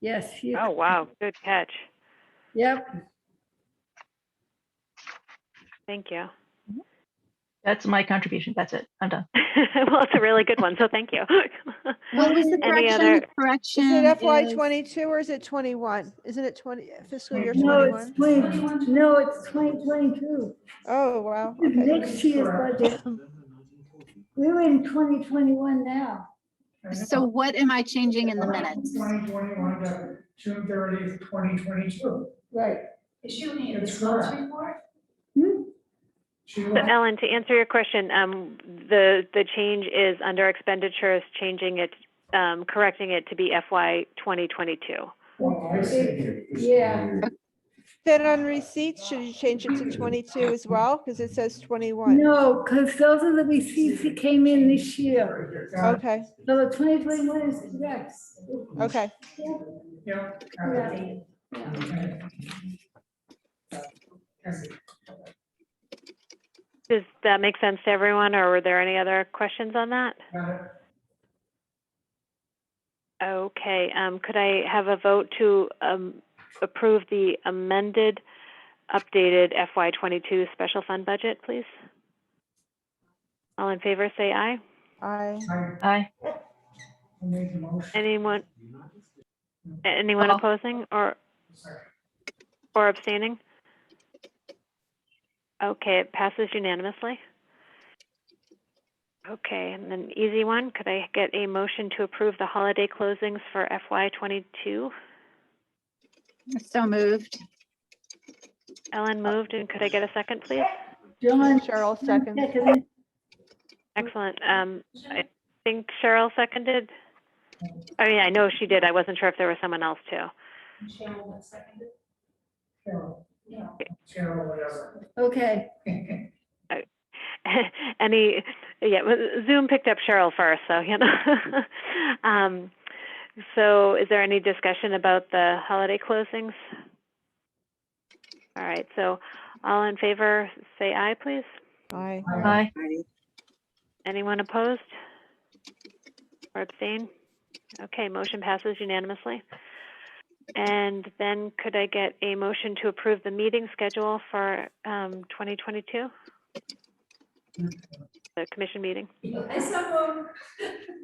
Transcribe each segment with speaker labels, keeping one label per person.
Speaker 1: Yes, she-
Speaker 2: Oh, wow, good catch.
Speaker 1: yep.
Speaker 2: Thank you.
Speaker 3: That's my contribution. That's it. I'm done.
Speaker 2: Well, it's a really good one, so thank you.
Speaker 4: What was the
Speaker 2: Any
Speaker 4: correction?
Speaker 2: other-
Speaker 4: The Correction.
Speaker 5: Is it FY
Speaker 4: is-
Speaker 5: twenty-two or is it twenty-one? Isn't it twenty, fiscal year
Speaker 1: No, it's
Speaker 5: twenty-one?
Speaker 1: 20, no, it's 2022.
Speaker 5: Oh, wow,
Speaker 1: It's
Speaker 5: okay.
Speaker 1: Next year's budget. We're in 2021 now.
Speaker 4: So what am I changing in the minutes?
Speaker 6: Twenty twenty-one to June thirtieth, twenty twenty-two.
Speaker 1: Right.
Speaker 7: Is she only in the
Speaker 6: It's
Speaker 7: results
Speaker 6: correct.
Speaker 7: report?
Speaker 6: She
Speaker 2: So Ellen, to answer your question, um, the, the change is under expenditures, changing it, um, correcting it to be FY 2022.
Speaker 1: Oh,
Speaker 6: Well, I see here.
Speaker 1: Yeah.
Speaker 5: Then on receipts, should you change it to twenty-two as well? Because it says twenty-one.
Speaker 1: No, because those are the receipts that came in this year.
Speaker 6: Got it.
Speaker 5: Okay,
Speaker 1: So the 2021 is correct.
Speaker 5: okay.
Speaker 6: Yeah. got it.
Speaker 1: Yeah.
Speaker 6: Okay.
Speaker 2: Does that make sense to everyone, or were there any other questions on that?
Speaker 6: Got it.
Speaker 2: Okay, um, could I have a vote to, um, approve the amended, updated FY twenty-two special fund budget, please? All in favor, say aye.
Speaker 5: I,
Speaker 6: I
Speaker 3: Aye.
Speaker 6: made the motion.
Speaker 2: Anyone, anyone
Speaker 3: Oh.
Speaker 2: opposing or, or abstaining? Okay, it passes unanimously. Okay, and then easy one, could I get a motion to approve the holiday closings for FY twenty-two?
Speaker 4: So moved.
Speaker 2: Ellen moved, and could I get a second, please?
Speaker 1: John.
Speaker 5: Cheryl seconds.
Speaker 2: Excellent. Um, I think Cheryl seconded. I mean, I know she did. I wasn't sure if there was someone else too.
Speaker 7: Cheryl seconded?
Speaker 6: Cheryl,
Speaker 7: No.
Speaker 6: Cheryl, whatever.
Speaker 1: Okay.
Speaker 2: Any, yeah, well, Zoom picked up Cheryl first, so, you know. Um, so is there any discussion about the holiday closings? All right, so all in favor, say aye, please.
Speaker 5: I,
Speaker 3: Aye.
Speaker 2: Anyone opposed? Or abstain? Okay, motion passes unanimously. And then could I get a motion to approve the meeting schedule for um, 2022? The commission meeting?
Speaker 7: I saw one.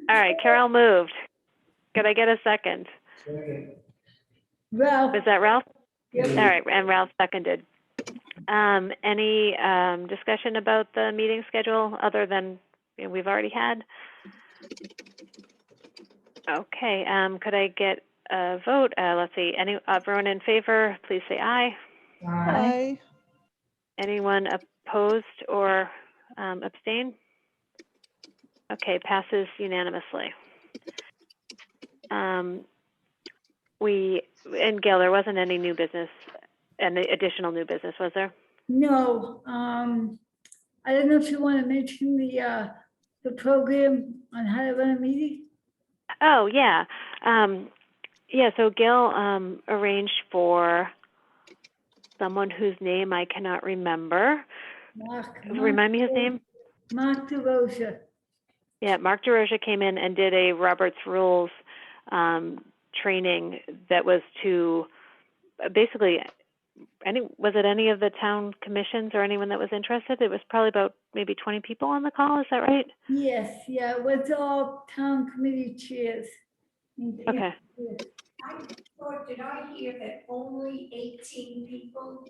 Speaker 2: All right, Carol moved. Could I get a second?
Speaker 6: Second.
Speaker 1: Ralph.
Speaker 2: Was that Ralph?
Speaker 1: Yep.
Speaker 2: All right, and Ralph seconded. Um, Any um, discussion about the meeting schedule other than you know, we've already had? Okay, um, could I get a vote? Uh, Let's see, any, everyone in favor, please say aye.
Speaker 6: Aye.
Speaker 5: I,
Speaker 2: Anyone opposed or um, abstain? Okay, passes unanimously. Um, We, and Gail, there wasn't any new business, any additional new business, was there?
Speaker 1: No, um, I don't know if you want to mention the, uh, the program on how to run a meeting.
Speaker 2: Oh, yeah. Um, yeah, so Gail um, arranged for someone whose name I cannot remember.
Speaker 1: Mark.
Speaker 2: Remind me his name?
Speaker 1: Mark DeRosa.
Speaker 2: Yeah, Mark DeRosa came in and did a Robert's Rules um, training that was to uh, basically any was it any of the town commissions or anyone that was interested? It was probably about maybe 20 people on the call. Is that right?
Speaker 1: Yes, yeah, it was all town committee chairs.
Speaker 2: Okay.
Speaker 7: I thought, Oh, did I hear that only eighteen people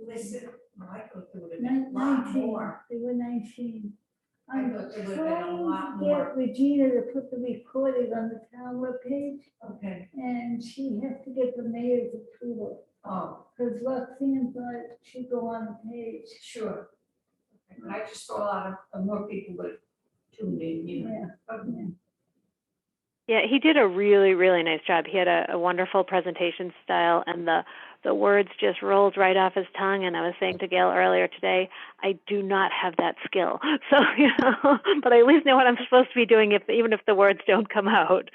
Speaker 7: listened? Well, I thought there would have been
Speaker 1: Nin-
Speaker 7: a lot
Speaker 1: nineteen.
Speaker 7: more.
Speaker 1: They were nineteen.
Speaker 7: I
Speaker 1: I'm
Speaker 7: thought there would've been a
Speaker 1: trying
Speaker 7: lot
Speaker 1: to
Speaker 7: more.
Speaker 1: get Regina to put the recording on the town webpage,
Speaker 7: Okay,
Speaker 1: and she has to get the mayor's approval.
Speaker 7: oh,
Speaker 1: Because Roxanne thought she'd go on the page.
Speaker 7: sure. Okay, But I just saw a lot of, uh, more people would tune in, you know.
Speaker 1: Yeah,
Speaker 7: Okay.
Speaker 2: Yeah, he did a really, really nice job. He had a, a wonderful presentation style, and the the words just rolled right off his tongue. And I was saying to Gail earlier today, I do not have that skill, so you know, but I at least know what I'm supposed to be doing, if even if the words don't come out.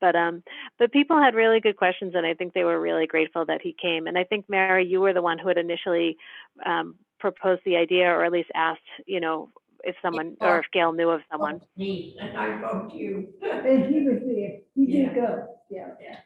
Speaker 2: But um, but people had really good questions, and I think they were really grateful that he came. And I think Mary, you were the one who had initially um, proposed the idea, or at least asked, you know, if someone or if Gail knew of someone.
Speaker 7: Me, and I vote you.
Speaker 1: And he was there. He did go. Yeah.
Speaker 7: Yeah.